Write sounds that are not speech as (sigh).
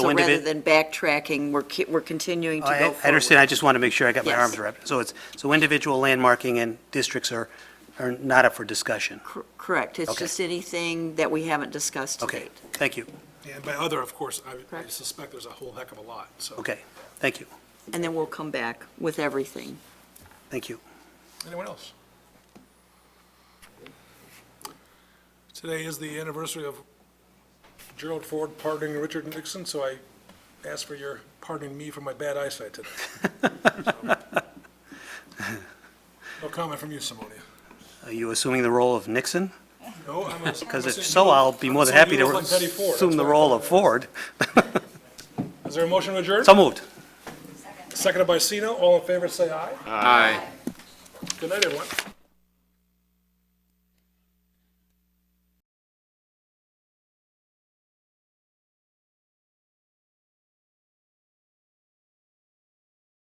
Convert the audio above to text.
So when rather it- Oh, than backtracking, we're, ki- we're continuing to go I- forward. I understand, I just want to make sure I got my Yes. arms wrapped. So it's, so individual landmarking and districts are, are not up for discussion. Cor- Correct. It's Okay. just anything that we haven't discussed to Okay, date. thank you, And by other, of course, I would- I Correct. suspect there's a whole heck of a lot, so. okay, thank you, And then we'll come back with everything. thank you. Anyone else? Today is the anniversary of Gerald Ford pardoning Richard Nixon, so I ask for your pardoning me for my bad (laughs) eyesight today. No comment from you, Simonia. Are you assuming the role of Nixon? No, I'm. (laughs) Because if so, I'll be more than happy to assume the role of Ford. Is there a motion to adjourn? So moved. Seconded by Sino. All in favor, say aye. Aye. Good night, everyone.